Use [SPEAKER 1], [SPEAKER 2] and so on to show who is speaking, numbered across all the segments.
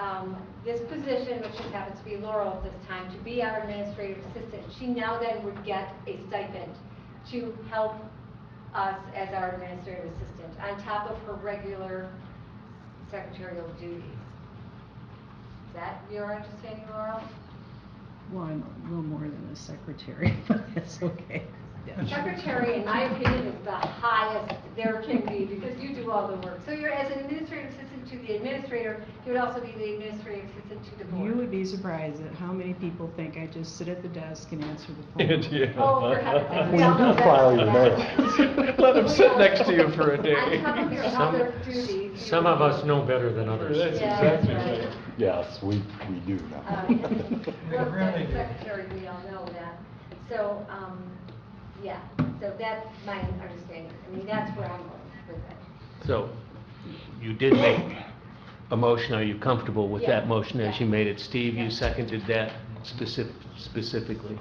[SPEAKER 1] um, this position, which just happens to be Laurel at this time, to be our administrative assistant, she now then would get a stipend to help us as our administrative assistant, on top of her regular secretarial duties. Is that your understanding, Laurel?
[SPEAKER 2] Well, I'm a little more than a secretary, but that's okay.
[SPEAKER 1] Secretary, in my opinion, is the highest there can be, because you do all the work. So you're, as an administrative assistant to the administrator, you would also be the administrative assistant to the
[SPEAKER 2] You
[SPEAKER 1] board.
[SPEAKER 2] would be surprised at how many people think I just sit at the desk and answer the phone.
[SPEAKER 3] Yeah.
[SPEAKER 1] Oh, for heaven's sake, we
[SPEAKER 4] Well,
[SPEAKER 1] all know
[SPEAKER 4] you
[SPEAKER 1] better
[SPEAKER 4] file
[SPEAKER 1] than
[SPEAKER 4] your
[SPEAKER 1] that.
[SPEAKER 3] Let him sit next to you for a day.
[SPEAKER 1] On top of your other duties. you-
[SPEAKER 5] Some, some of us know better than others.
[SPEAKER 3] That's
[SPEAKER 1] Yeah, that's
[SPEAKER 3] exactly
[SPEAKER 1] right.
[SPEAKER 3] right.
[SPEAKER 4] Yes, we, we do
[SPEAKER 1] Uh,
[SPEAKER 4] now.
[SPEAKER 1] Well,
[SPEAKER 3] really
[SPEAKER 1] that's
[SPEAKER 3] do.
[SPEAKER 1] secretary, we all know that. So, um, yeah, so that's my understanding. I mean, that's where I'm going with it.
[SPEAKER 5] So you did make a motion. Are you comfortable with
[SPEAKER 1] Yeah.
[SPEAKER 5] that motion as you
[SPEAKER 1] Yeah.
[SPEAKER 5] made it? Steve,
[SPEAKER 1] Yeah.
[SPEAKER 5] you seconded that specific, specifically.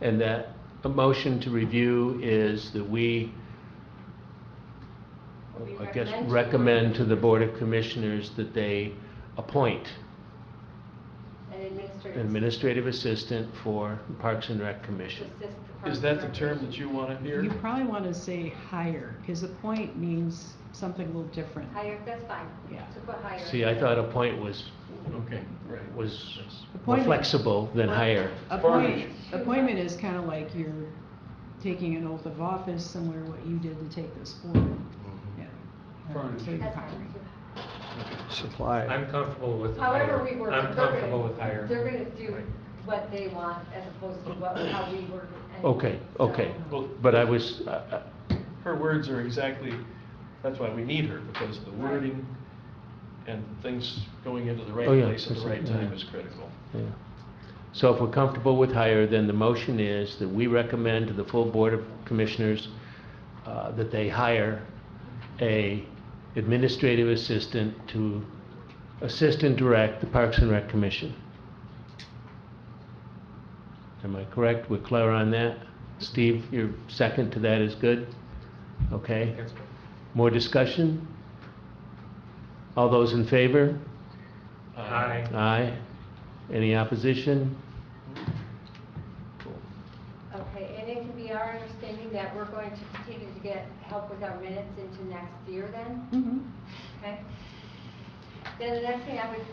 [SPEAKER 5] And that, a motion to review is that we,
[SPEAKER 1] We
[SPEAKER 5] I guess,
[SPEAKER 1] recommend to-
[SPEAKER 5] recommend to the Board of Commissioners that they appoint
[SPEAKER 1] An
[SPEAKER 5] an
[SPEAKER 1] administrative
[SPEAKER 5] administrative assistant for Parks and Rec Commission.
[SPEAKER 1] assistant to assist the Parks
[SPEAKER 3] Is that
[SPEAKER 1] and
[SPEAKER 3] the term
[SPEAKER 1] Recreation.
[SPEAKER 3] that you want to
[SPEAKER 2] You
[SPEAKER 3] hear?
[SPEAKER 2] probably want to say hire, because appoint means something a little different.
[SPEAKER 1] Higher, that's fine.
[SPEAKER 2] Yeah.
[SPEAKER 1] So put higher.
[SPEAKER 5] See, I thought appoint was,
[SPEAKER 3] Okay, right.
[SPEAKER 5] was more
[SPEAKER 2] Appointment.
[SPEAKER 5] flexible than hire.
[SPEAKER 2] Appoint,
[SPEAKER 3] Appointment.
[SPEAKER 2] appointment is kind of like you're taking an oath of office, similar to what you did to take this board. Yeah.
[SPEAKER 3] Furnish.
[SPEAKER 2] So you're
[SPEAKER 1] That's
[SPEAKER 2] hiring.
[SPEAKER 1] fine.
[SPEAKER 4] Supply.
[SPEAKER 6] I'm comfortable with
[SPEAKER 1] However
[SPEAKER 6] higher.
[SPEAKER 1] we work.
[SPEAKER 6] I'm
[SPEAKER 1] they're gonna-
[SPEAKER 6] comfortable with higher.
[SPEAKER 1] They're gonna do what they want as opposed to what, how we work. and-
[SPEAKER 5] Okay, okay.
[SPEAKER 1] So-
[SPEAKER 3] Well,
[SPEAKER 5] But I was, uh,
[SPEAKER 3] her words are exactly, that's why we need her, because the
[SPEAKER 1] Right.
[SPEAKER 3] wording and things going into the right
[SPEAKER 5] Oh, yeah,
[SPEAKER 3] place at the
[SPEAKER 5] that's it,
[SPEAKER 3] right time
[SPEAKER 5] yeah.
[SPEAKER 3] is critical.
[SPEAKER 5] Yeah. So if we're comfortable with hire, then the motion is that we recommend to the full Board of Commissioners uh, that they hire a administrative assistant to assist and direct the Parks and Rec Commission. Am I correct? We're clear on that? Steve, your second to that is good? Okay.
[SPEAKER 6] That's good.
[SPEAKER 5] More discussion? All those in favor?
[SPEAKER 3] Uh,
[SPEAKER 6] Aye.
[SPEAKER 5] Aye. Any opposition?
[SPEAKER 1] Okay, and it can be our understanding that we're going to continue to get help with our minutes into next year then,
[SPEAKER 2] Mhm.
[SPEAKER 1] okay? Then the next thing I would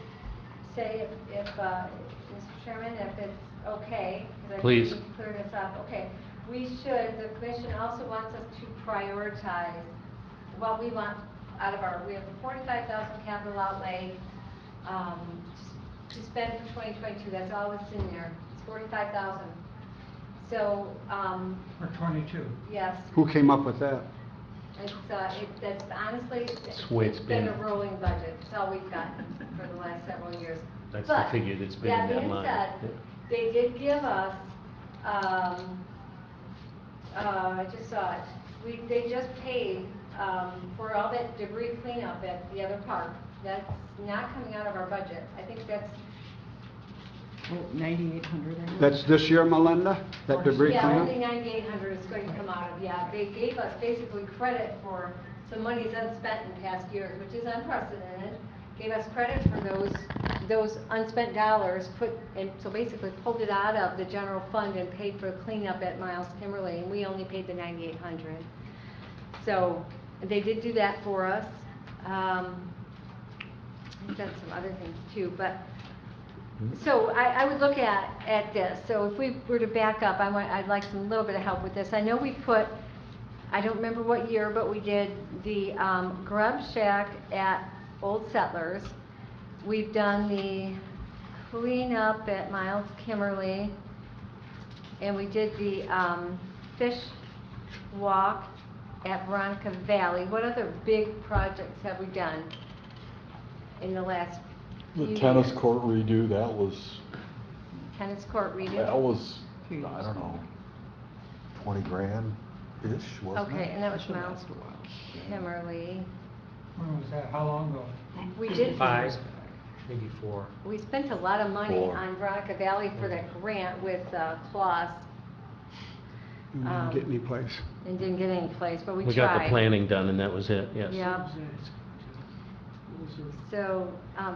[SPEAKER 1] say, if- if, uh, Mr. Chairman, if it's okay, because I think
[SPEAKER 5] Please.
[SPEAKER 1] we can clear this up, okay. We should, the commission also wants us to prioritize what we want out of our, we have a forty-five thousand capital outlay, um, to spend for twenty twenty-two, that's all that's in there, it's forty-five thousand. So, um,
[SPEAKER 7] Or 22.
[SPEAKER 1] yes,
[SPEAKER 4] Who came up with that?
[SPEAKER 1] it's, uh, it, that's honestly, it's
[SPEAKER 5] It's the way it's
[SPEAKER 1] been a
[SPEAKER 5] been.
[SPEAKER 1] rolling budget, it's all we've gotten for the last several years.
[SPEAKER 5] That's the
[SPEAKER 1] But,
[SPEAKER 5] figure that's been in that line.
[SPEAKER 1] That
[SPEAKER 5] Yeah.
[SPEAKER 1] being said, they did give us, um, uh, I just saw it, we, they just paid, um, for all that debris cleanup at the other park. That's not coming out of our budget. I think that's,
[SPEAKER 2] Oh, 9,800. I guess.
[SPEAKER 4] That's this year, Melinda? That debris
[SPEAKER 1] yeah, only
[SPEAKER 4] cleanup?
[SPEAKER 1] ninety-eight hundred is going to come out of, yeah. They gave us basically credit for some monies unspent in past years, which is unprecedented. Gave us credit for those, those unspent dollars, put, and so basically pulled it out of the general fund and paid for cleanup at Miles Kimberly, and we only paid the ninety-eight hundred. So they did do that for us. Um, I've done some other things too, but, so I, I would look at, at this. So if we were to back up, I want, I'd like some little bit of help with this. I know we put, I don't remember what year, but we did the um, grub shack at Old Settlers. We've done the cleanup at Miles Kimmerly. And we did the um, fish walk at Veronica Valley. What other big projects have we done in the last few
[SPEAKER 4] The tennis
[SPEAKER 1] years?
[SPEAKER 4] court redo, that was,
[SPEAKER 1] Tennis court redo?
[SPEAKER 4] that was, I
[SPEAKER 2] Few years
[SPEAKER 4] don't
[SPEAKER 2] ago.
[SPEAKER 4] know, 20 grand-ish, wasn't it?
[SPEAKER 1] Okay, and that was
[SPEAKER 2] That should
[SPEAKER 1] Miles
[SPEAKER 2] last a while.
[SPEAKER 1] Kimmerly.
[SPEAKER 7] When was that? How long ago?
[SPEAKER 1] We did,
[SPEAKER 6] Five, maybe four.
[SPEAKER 1] we spent a lot of money
[SPEAKER 4] Four.
[SPEAKER 1] on Veronica Valley for that grant with uh, Claus. um,
[SPEAKER 4] place.
[SPEAKER 1] And didn't get any place, but we tried.
[SPEAKER 5] We got the planning done and that was it, yes.
[SPEAKER 1] Yep, so, um,